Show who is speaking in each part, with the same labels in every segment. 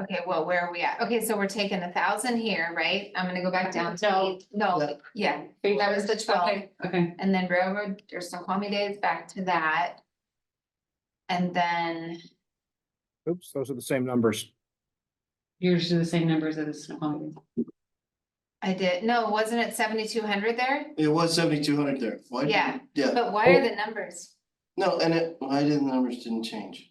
Speaker 1: Okay, well, where are we at? Okay, so we're taking a thousand here, right? I'm gonna go back down to,
Speaker 2: No.
Speaker 1: no, yeah, that was the twelve.
Speaker 2: Okay, okay,
Speaker 1: And then railroad or Snoqualmie Days back to that. And then,
Speaker 3: Oops, those are the same numbers.
Speaker 2: yours are the same numbers as the Snoqualmie.
Speaker 1: I did, no, wasn't it seventy-two hundred there?
Speaker 4: It was seventy-two hundred there. Why did-
Speaker 1: Yeah.
Speaker 4: Yeah,
Speaker 1: But why are the numbers?
Speaker 4: no, and it, why didn't the numbers didn't change?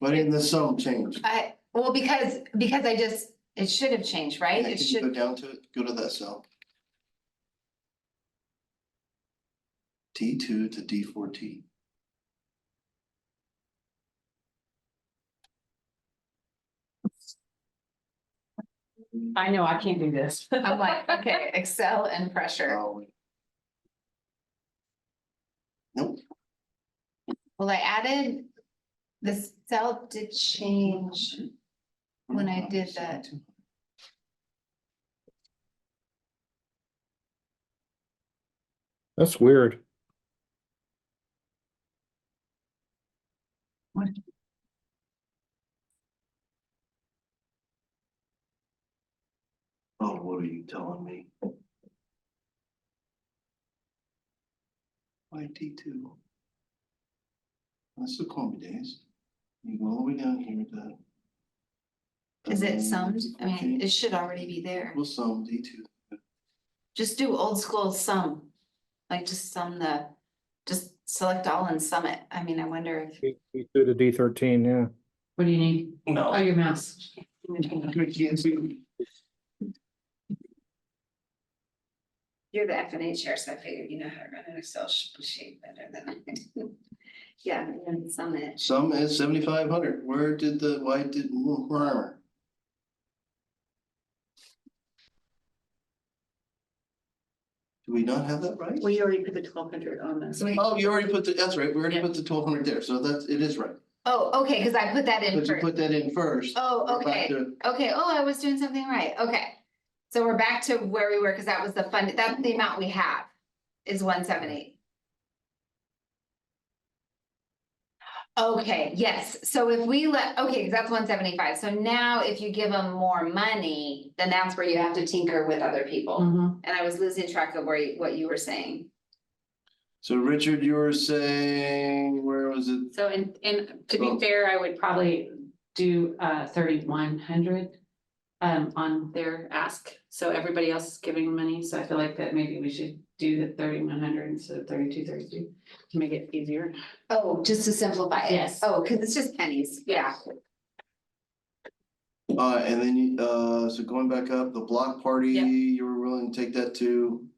Speaker 4: Why didn't the sum change?
Speaker 1: I, well, because, because I just, it should have changed, right?
Speaker 4: Yeah,
Speaker 1: It
Speaker 4: can you Go
Speaker 1: should,
Speaker 4: down to it, go to that cell. D two to D four T.
Speaker 2: I know, I can't do this.
Speaker 1: I'm like, okay, Excel and pressure.
Speaker 4: Oh, Nope,
Speaker 1: Well, I added, the cell did change. When I did that.
Speaker 3: That's weird.
Speaker 4: Oh, what are you telling me? Why D two? That's the Columbia days. You go all the way down here to.
Speaker 1: Is it summed? I mean,
Speaker 4: Okay.
Speaker 1: it should already be there.
Speaker 4: We'll sum D two.
Speaker 1: Just do old school sum. Like just sum the, just select all and sum it. I mean, I wonder if,
Speaker 3: D two to D thirteen, yeah.
Speaker 2: What do you need?
Speaker 4: No.
Speaker 2: Oh, your mouse.
Speaker 1: you're the F and A chair, so I figured you know how to run an Excel sh- sheet better than I do. Yeah, and then sum it.
Speaker 4: Sum is seventy-five hundred. Where did the, why did, where? Do we not have that right?
Speaker 2: We already put the twelve hundred on this.
Speaker 1: So we-
Speaker 4: Oh, you already put the, that's right, we already
Speaker 2: Yeah.
Speaker 4: put the twelve hundred there, so that's, it is right,
Speaker 1: Oh, okay, because I put that in
Speaker 4: but you
Speaker 1: first.
Speaker 4: put that in first.
Speaker 1: Oh,
Speaker 4: We're back
Speaker 1: okay,
Speaker 4: to-
Speaker 1: okay. Oh, I was doing something right. Okay. So we're back to where we were because that was the fund, that's the amount we have is one seven eight. Okay, yes. So if we let, okay, because that's one seventy-five. So now if you give them more money, then that's where you have to tinker with other people.
Speaker 2: Mhm.
Speaker 1: And I was losing track of where, you- what you were saying.
Speaker 4: So Richard, you were saying, where was it?
Speaker 2: So and and to
Speaker 4: So-
Speaker 2: be fair, I would probably do uh thirty-one hundred. Um, on their ask, so everybody else is giving money, so I feel like that maybe we should do the thirty-one hundred instead of thirty-two, thirty-two, to make it easier.
Speaker 1: Oh, just to simplify it.
Speaker 2: Yes.
Speaker 1: Oh, because it's just pennies. Yeah.
Speaker 4: Uh, and then you, uh, so going back up, the block party,
Speaker 2: Yeah.
Speaker 4: you were willing to take that to,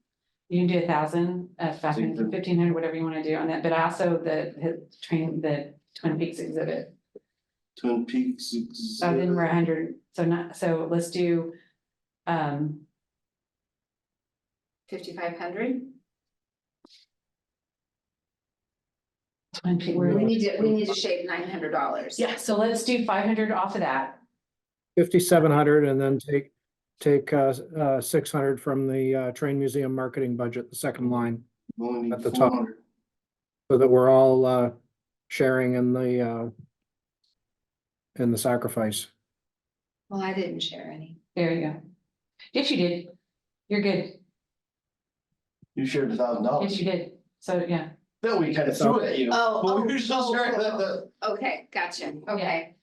Speaker 2: You can do a thousand, uh, five
Speaker 4: So you
Speaker 2: hundred,
Speaker 4: can-
Speaker 2: fifteen hundred, whatever you wanna do on that, but also the, the train, the Twin Peaks exhibit.
Speaker 4: Twin Peaks.
Speaker 2: So then we're a hundred, so not, so let's do, um,
Speaker 1: Fifty-five hundred?
Speaker 2: Twin Peaks.
Speaker 1: We need to, we need to shave nine hundred dollars.
Speaker 2: Yeah, so let's do five hundred off of that.
Speaker 3: Fifty-seven hundred and then take, take, uh, uh, six hundred from the, uh, train museum marketing budget, the second line.
Speaker 4: We Only
Speaker 3: At
Speaker 4: need
Speaker 3: the
Speaker 4: four
Speaker 3: top.
Speaker 4: hundred.
Speaker 3: So that we're all, uh, sharing in the, uh, in the sacrifice.
Speaker 1: Well, I didn't share any.
Speaker 2: There you go. Yes, you did. You're good.
Speaker 4: You shared a thousand
Speaker 2: Yes,
Speaker 4: dollars.
Speaker 2: you did. So, yeah.
Speaker 4: Then we kind of threw it at you.
Speaker 1: Oh,
Speaker 4: But we
Speaker 1: oh,
Speaker 4: were still
Speaker 1: oh,
Speaker 4: sharing
Speaker 1: oh,
Speaker 4: that,
Speaker 1: oh.
Speaker 4: that.
Speaker 1: Okay, gotcha. Okay.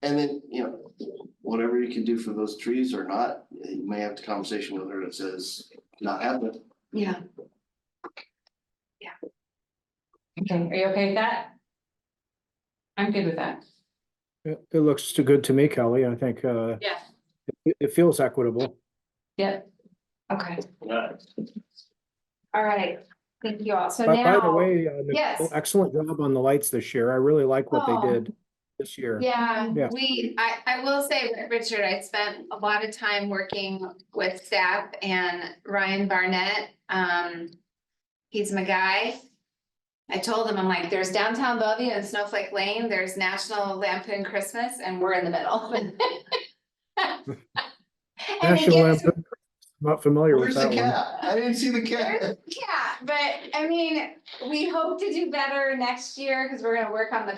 Speaker 4: And then, you know, whatever you can do for those trees or not, you may have the conversation with her that says, not happening.
Speaker 1: Yeah.
Speaker 2: Okay, are you okay with that? I'm good with that.
Speaker 3: It, it looks too good to me, Kelly. I think, uh,
Speaker 2: Yeah.
Speaker 3: it, it feels equitable.
Speaker 2: Yep. Okay.
Speaker 1: All right. Thank you all. So
Speaker 3: By, by the
Speaker 1: now,
Speaker 3: way, uh, Nicole,
Speaker 1: yes.
Speaker 3: excellent job on the lights this year. I really like what
Speaker 1: Oh.
Speaker 3: they did this year.
Speaker 1: yeah,
Speaker 3: Yeah.
Speaker 1: we, I, I will say, Richard, I spent a lot of time working with staff and Ryan Barnett. Um, he's my guy. I told him, I'm like, there's downtown Bellevue and Snowflake Lane, there's National Lampoon Christmas, and we're in the middle. And they
Speaker 3: National
Speaker 1: gave us
Speaker 3: Lampoon, not familiar
Speaker 4: Where's
Speaker 3: with
Speaker 4: the
Speaker 3: that one.
Speaker 4: cat? I didn't see the cat.
Speaker 1: Yeah, but I mean, we hope to do better next year because we're gonna work on the